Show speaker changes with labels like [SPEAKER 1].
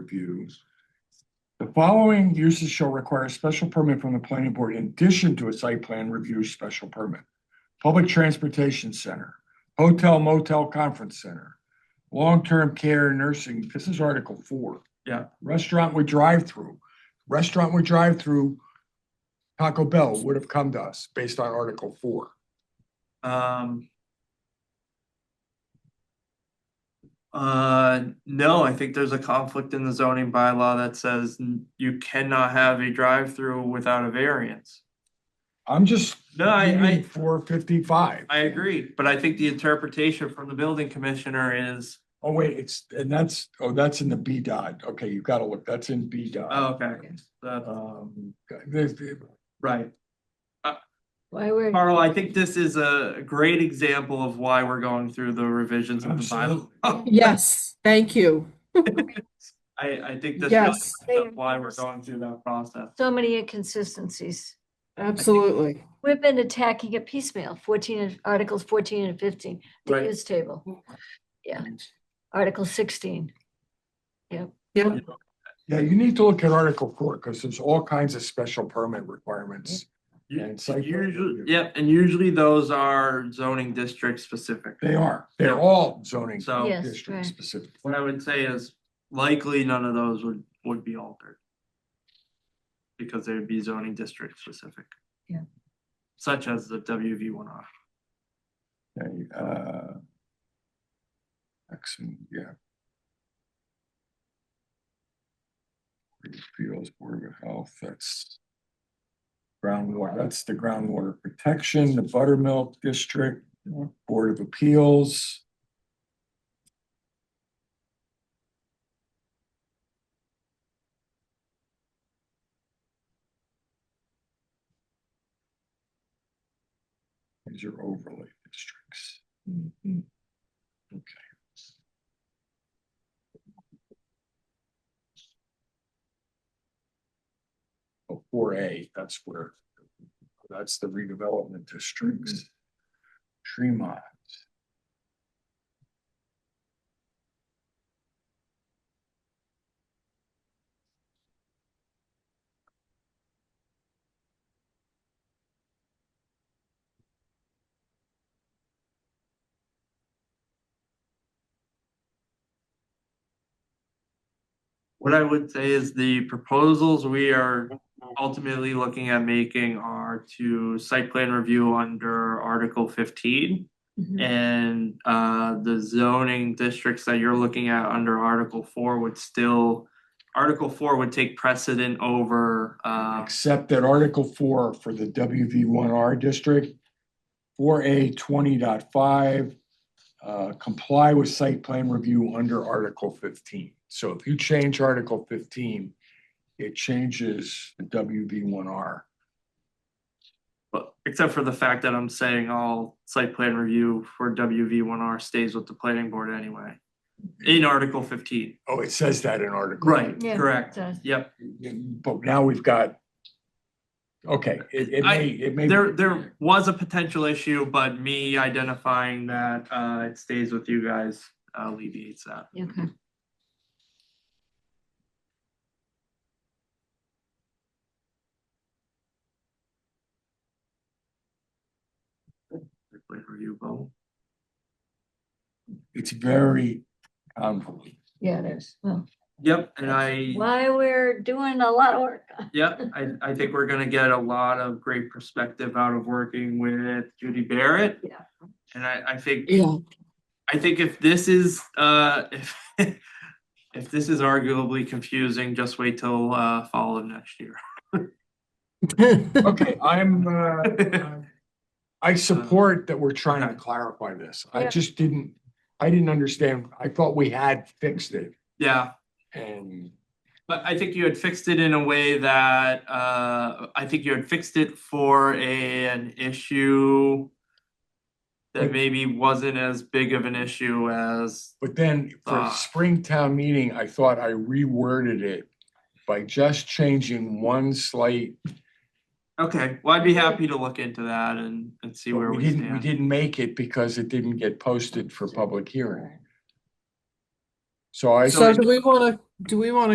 [SPEAKER 1] review. The following uses shall require a special permit from the planning board in addition to a site plan review special permit. Public transportation center, hotel motel conference center, long-term care nursing, this is article four.
[SPEAKER 2] Yeah.
[SPEAKER 1] Restaurant with drive-through, restaurant with drive-through Taco Bell would have come to us based on article four.
[SPEAKER 2] Um. Uh, no, I think there's a conflict in the zoning bylaw that says n- you cannot have a drive-through without a variance.
[SPEAKER 1] I'm just.
[SPEAKER 2] No, I- I-
[SPEAKER 1] Four fifty-five.
[SPEAKER 2] I agree, but I think the interpretation from the building commissioner is,
[SPEAKER 1] Oh, wait, it's, and that's, oh, that's in the B dot. Okay, you gotta look, that's in B dot.
[SPEAKER 2] oh, okay, that's
[SPEAKER 1] Um, there's-
[SPEAKER 2] right.
[SPEAKER 3] Why we're,
[SPEAKER 2] Carl, I think this is a great example of why we're going through the revisions of the bylaw.
[SPEAKER 1] Absolutely.
[SPEAKER 4] Yes, thank you.
[SPEAKER 2] I, I think this really
[SPEAKER 4] Yes,
[SPEAKER 2] is why we're going through that process.
[SPEAKER 3] so many inconsistencies.
[SPEAKER 4] absolutely.
[SPEAKER 3] We've been attacking it piecemeal, fourteen, and- articles fourteen and fifteen, the
[SPEAKER 2] Right.
[SPEAKER 3] use table. Yeah, article sixteen.
[SPEAKER 4] Yeah,
[SPEAKER 1] Yeah, you need to look at article four, because there's all kinds of special permit requirements.
[SPEAKER 2] You-
[SPEAKER 1] And site plan
[SPEAKER 2] Usually,
[SPEAKER 1] review.
[SPEAKER 2] yep, and usually those are zoning district specific.
[SPEAKER 1] They are, they're all zoning
[SPEAKER 2] So-
[SPEAKER 3] Yes,
[SPEAKER 1] district
[SPEAKER 3] right.
[SPEAKER 1] specific.
[SPEAKER 2] What I would say is likely none of those would, would be altered. Because they would be zoning district specific.
[SPEAKER 3] Yeah.
[SPEAKER 2] Such as the WV one off.
[SPEAKER 1] Okay, uh. Excellent, yeah. Appeals Board of Health, that's. Groundwater, that's the groundwater protection, the Buttermilk District, Board of Appeals. These are overlay districts. Oh, Four A, that's where, that's the redevelopment districts. Tremont.
[SPEAKER 2] What I would say is the proposals we are ultimately looking at making are to site plan review under Article fifteen.
[SPEAKER 3] Mhm.
[SPEAKER 2] And uh the zoning districts that you're looking at under Article four would still. Article four would take precedent over uh
[SPEAKER 1] Except that Article four for the WV one R district. Four A 20.5 uh, comply with site plan review under Article fifteen. So if you change Article fifteen, it changes the WV one R.
[SPEAKER 2] but except for the fact that I'm saying all site plan review for WV one R stays with the planning board anyway. In Article fifteen.
[SPEAKER 1] Oh, it says that in Article.
[SPEAKER 2] Right,
[SPEAKER 3] Yeah.
[SPEAKER 2] correct.
[SPEAKER 3] Does.
[SPEAKER 2] Yep.
[SPEAKER 1] But now we've got. Okay, it, it
[SPEAKER 2] I-
[SPEAKER 1] may, it may.
[SPEAKER 2] There there was a potential issue, but me identifying that uh it stays with you guys alleviates that.
[SPEAKER 3] Okay,
[SPEAKER 2] Site plan review vote.
[SPEAKER 1] It's very convoluted.
[SPEAKER 3] yeah, it is. Well,
[SPEAKER 2] Yep, and I.
[SPEAKER 3] why we're doing a lot of work.
[SPEAKER 2] Yeah, I, I think we're gonna get a lot of great perspective out of working with Judy Barrett.
[SPEAKER 3] Yeah.
[SPEAKER 2] And I, I think,
[SPEAKER 4] yeah,
[SPEAKER 2] I think if this is, uh, if, if this is arguably confusing, just wait till, uh, fall of next year.
[SPEAKER 1] Okay, I'm, uh, I support that we're trying to clarify this. I
[SPEAKER 3] Yeah.
[SPEAKER 1] just didn't, I didn't understand. I thought we had fixed it
[SPEAKER 2] Yeah,
[SPEAKER 1] and
[SPEAKER 2] but I think you had fixed it in a way that, uh, I think you had fixed it for a, an issue that
[SPEAKER 1] Like-
[SPEAKER 2] maybe wasn't as big of an issue as,
[SPEAKER 1] But then for
[SPEAKER 2] Ah.
[SPEAKER 1] Springtown meeting, I thought I reworded it by just changing one slight.
[SPEAKER 2] okay, well, I'd be happy to look into that and, and see where
[SPEAKER 1] We
[SPEAKER 2] we
[SPEAKER 1] didn't, we
[SPEAKER 2] stand.
[SPEAKER 1] didn't make it because it didn't get posted for public hearing. So I.
[SPEAKER 4] So do we want to, do we want to